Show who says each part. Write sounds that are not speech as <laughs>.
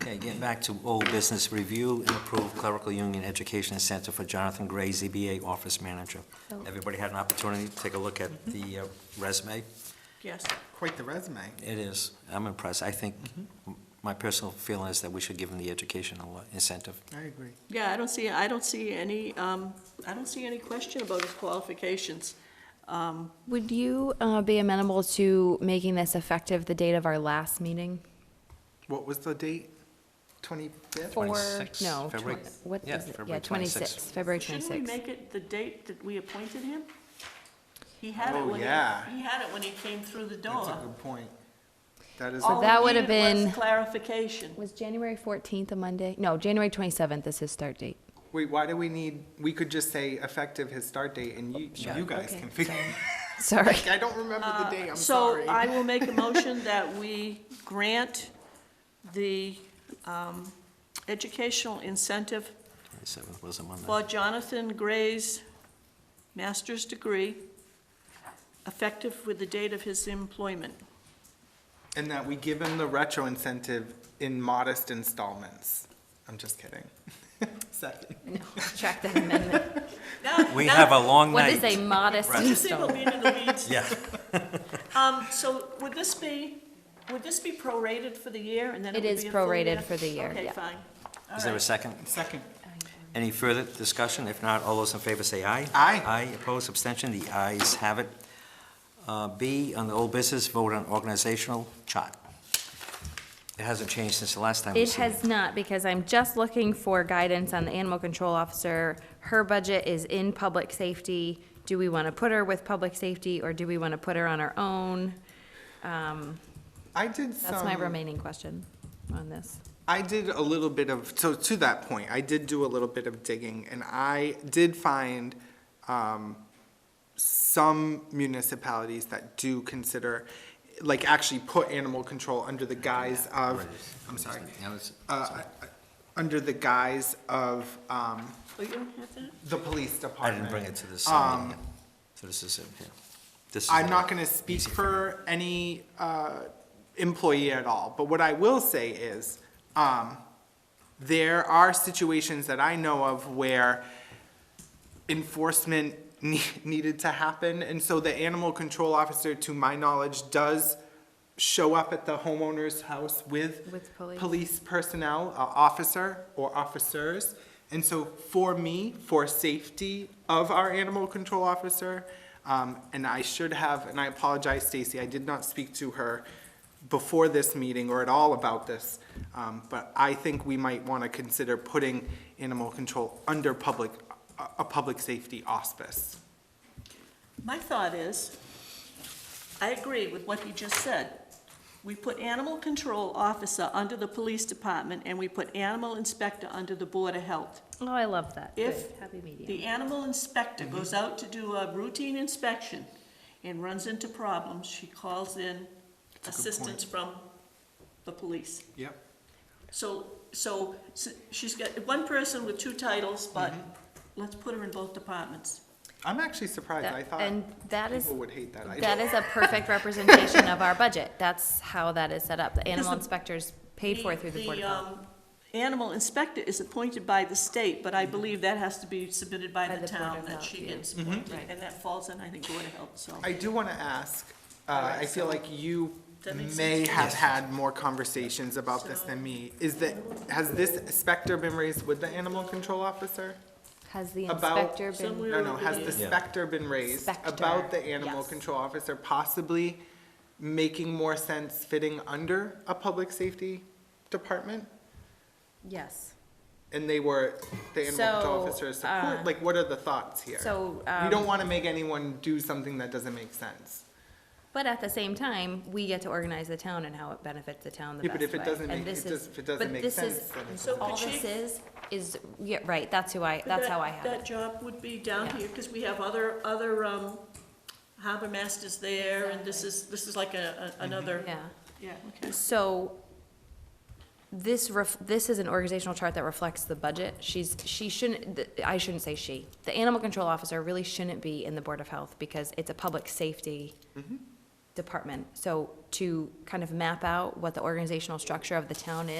Speaker 1: Okay, getting back to old business review and approve clerical union education incentive for Jonathan Gray, ZBA office manager.
Speaker 2: So-
Speaker 1: Everybody had an opportunity to take a look at the uh, resume?
Speaker 3: Yes, quite the resume.
Speaker 1: It is, I'm impressed. I think,
Speaker 4: Mm-hmm.
Speaker 1: my personal feeling is that we should give him the educational incentive.
Speaker 3: I agree.
Speaker 4: Yeah, I don't see, I don't see any, um, I don't see any question about his qualifications. Um,
Speaker 2: Would you uh, be amenable to making this effective the date of our last meeting?
Speaker 3: What was the date? Twenty-fifth?
Speaker 2: Or-
Speaker 1: 26,
Speaker 2: No,
Speaker 1: February-
Speaker 2: twen- what
Speaker 1: yeah,
Speaker 2: is it?
Speaker 1: February
Speaker 2: Yeah,
Speaker 1: 26.
Speaker 2: 26, February
Speaker 4: Shouldn't we
Speaker 2: 26.
Speaker 4: make it the date that we appointed him? He had it
Speaker 3: Oh,
Speaker 4: when he,
Speaker 3: yeah.
Speaker 4: he had it when he came through the
Speaker 3: That's a
Speaker 4: door.
Speaker 3: good point. That is,
Speaker 4: All
Speaker 2: So
Speaker 4: we
Speaker 3: a-
Speaker 2: that would've
Speaker 4: needed was
Speaker 2: been- <laughs>
Speaker 4: Clarification.
Speaker 2: Was January 14th a Monday? No, January 27th is his start date. <laughs>
Speaker 3: wait, why do we need, we could just say effective his start date and you,
Speaker 1: Yeah.
Speaker 3: you guys
Speaker 2: Okay,
Speaker 3: can figure.
Speaker 2: <laughs> Sorry.
Speaker 3: <laughs> I don't remember the day, I'm
Speaker 4: So
Speaker 3: sorry.
Speaker 4: I will
Speaker 2: <laughs>
Speaker 4: make a motion that we grant the, um, educational incentive
Speaker 1: 27th was a
Speaker 4: for
Speaker 1: Monday.
Speaker 4: Jonathan Gray's master's degree, effective with the date of his employment.
Speaker 3: And that we give him the retro incentive in modest installments. I'm just kidding. <laughs> Second.
Speaker 2: Track that amendment.
Speaker 1: <laughs> We have a long
Speaker 2: What
Speaker 1: night.
Speaker 2: is a modest
Speaker 1: Right.
Speaker 4: This thing will
Speaker 2: installment?
Speaker 4: be into the weeds.
Speaker 1: Yeah.
Speaker 4: Um, so would this be, would this be prorated for the year and then it
Speaker 2: It
Speaker 4: would be
Speaker 2: is
Speaker 4: a full
Speaker 2: prorated
Speaker 4: year?
Speaker 2: for the year,
Speaker 4: Okay,
Speaker 2: yeah.
Speaker 4: fine. All
Speaker 1: Is there a
Speaker 4: right.
Speaker 1: second?
Speaker 3: Second.
Speaker 1: Any further discussion? If not, all those in favor say aye.
Speaker 3: Aye.
Speaker 1: Aye, opposed, abstention, the ayes have it. Uh, B, on the old business, vote on organizational chart. It hasn't changed since the last time we
Speaker 2: It
Speaker 1: seen
Speaker 2: has not, because I'm just looking for guidance on the animal control officer. Her budget is in public safety. Do we want to put her with public safety, or do we want to put her on her own? Um,
Speaker 3: I did some.
Speaker 2: That's my remaining question on this.
Speaker 3: I did a little bit of, so to that point, I did do a little bit of digging, and I did find um, some municipalities that do consider, like, actually put animal control under the guise of, I'm sorry,
Speaker 1: Now it's-
Speaker 3: uh, under the guise of um,
Speaker 4: Oh, you don't have that?
Speaker 3: the police
Speaker 1: I
Speaker 3: department.
Speaker 1: didn't bring it to this.
Speaker 3: Um,
Speaker 1: meeting. So this is it, yeah. This is
Speaker 3: I'm
Speaker 1: the-
Speaker 3: not going to speak for any uh, employee at all, but what I will say is, um, there are situations that I know of where enforcement <laughs> ne- needed to happen, and so the animal control officer, to my knowledge, does show up at the homeowner's house with
Speaker 2: With police.
Speaker 3: police personnel, uh, officer or officers. And so for me, for safety of our animal control officer, um, and I should have, and I apologize, Stacy, I did not speak to her before this meeting or at all about this, um, but I think we might want to consider putting animal control under public, a, a public safety auspice.
Speaker 4: My thought is, I agree with what he just said. We put animal control officer under the police department and we put animal inspector under the board of health.
Speaker 2: Oh, I love that.
Speaker 4: If
Speaker 2: Good. Happy medium.
Speaker 4: The animal inspector goes out to do a routine inspection and runs into problems, she calls in
Speaker 3: a good point.
Speaker 4: assistance from the police.
Speaker 3: Yep.
Speaker 4: So, so, s she's got one person with two titles, but let's put her in both departments.
Speaker 3: I'm actually surprised. I
Speaker 2: That-
Speaker 3: thought
Speaker 2: And that is,
Speaker 3: people would hate that idea.
Speaker 2: that is a
Speaker 3: <laughs>
Speaker 2: perfect representation of our budget. That's how that is set up. The animal
Speaker 4: the-
Speaker 2: inspector's paid for through the Board of Health.
Speaker 4: um, Animal inspector is appointed by the state, but I believe that has to be submitted by
Speaker 2: By
Speaker 4: the
Speaker 2: the Board
Speaker 4: town
Speaker 2: of
Speaker 4: that
Speaker 2: Health,
Speaker 4: she
Speaker 2: yeah.
Speaker 4: gets appointed,
Speaker 2: Right.
Speaker 4: and that falls in, I think, Board of Health, so.
Speaker 3: I do want to ask, uh, I feel like you
Speaker 4: That makes
Speaker 3: may
Speaker 4: sense.
Speaker 3: have had more conversations about this than me. Is that, has this specter been raised with the animal control officer?
Speaker 2: Has the
Speaker 3: About-
Speaker 2: inspector been,
Speaker 4: Somewhere-
Speaker 3: No, no, has the
Speaker 1: Yeah.
Speaker 3: specter been raised about
Speaker 2: Specter,
Speaker 3: the animal
Speaker 2: yes.
Speaker 3: control officer possibly making more sense fitting under a public safety department?
Speaker 2: yes.
Speaker 3: And they were, the animal control
Speaker 2: So, uh,
Speaker 3: officer is support, like, what are the thoughts here?
Speaker 2: So,
Speaker 3: We don't
Speaker 2: um,
Speaker 3: want to make anyone do something that doesn't make sense.
Speaker 2: but at the same time, we get to organize the town and how it benefits the town the
Speaker 3: Yeah,
Speaker 2: best
Speaker 3: but
Speaker 2: way.
Speaker 3: if it doesn't
Speaker 2: And
Speaker 3: make-
Speaker 2: this
Speaker 3: it
Speaker 2: is-
Speaker 3: does- if it doesn't
Speaker 2: but
Speaker 3: make
Speaker 2: this
Speaker 3: sense,
Speaker 2: is-
Speaker 3: then it
Speaker 4: So
Speaker 2: All
Speaker 4: could
Speaker 2: this
Speaker 4: she-
Speaker 2: is, is, yeah, right, that's who I, that's
Speaker 4: That-
Speaker 2: how I have
Speaker 4: That
Speaker 2: it.
Speaker 4: job would be down
Speaker 2: Yeah.
Speaker 4: here, because we have other, other, um, harbor masters there, and this is, this is like a, a- another,
Speaker 2: Mm-hmm. Yeah.
Speaker 4: yeah, okay.
Speaker 2: So this ref, this is an organizational chart that reflects the budget. She's, she shouldn't, th- I shouldn't say she. The animal control officer really shouldn't be in the Board of Health because it's a public safety department. So to kind of map out what the organizational structure of the town is.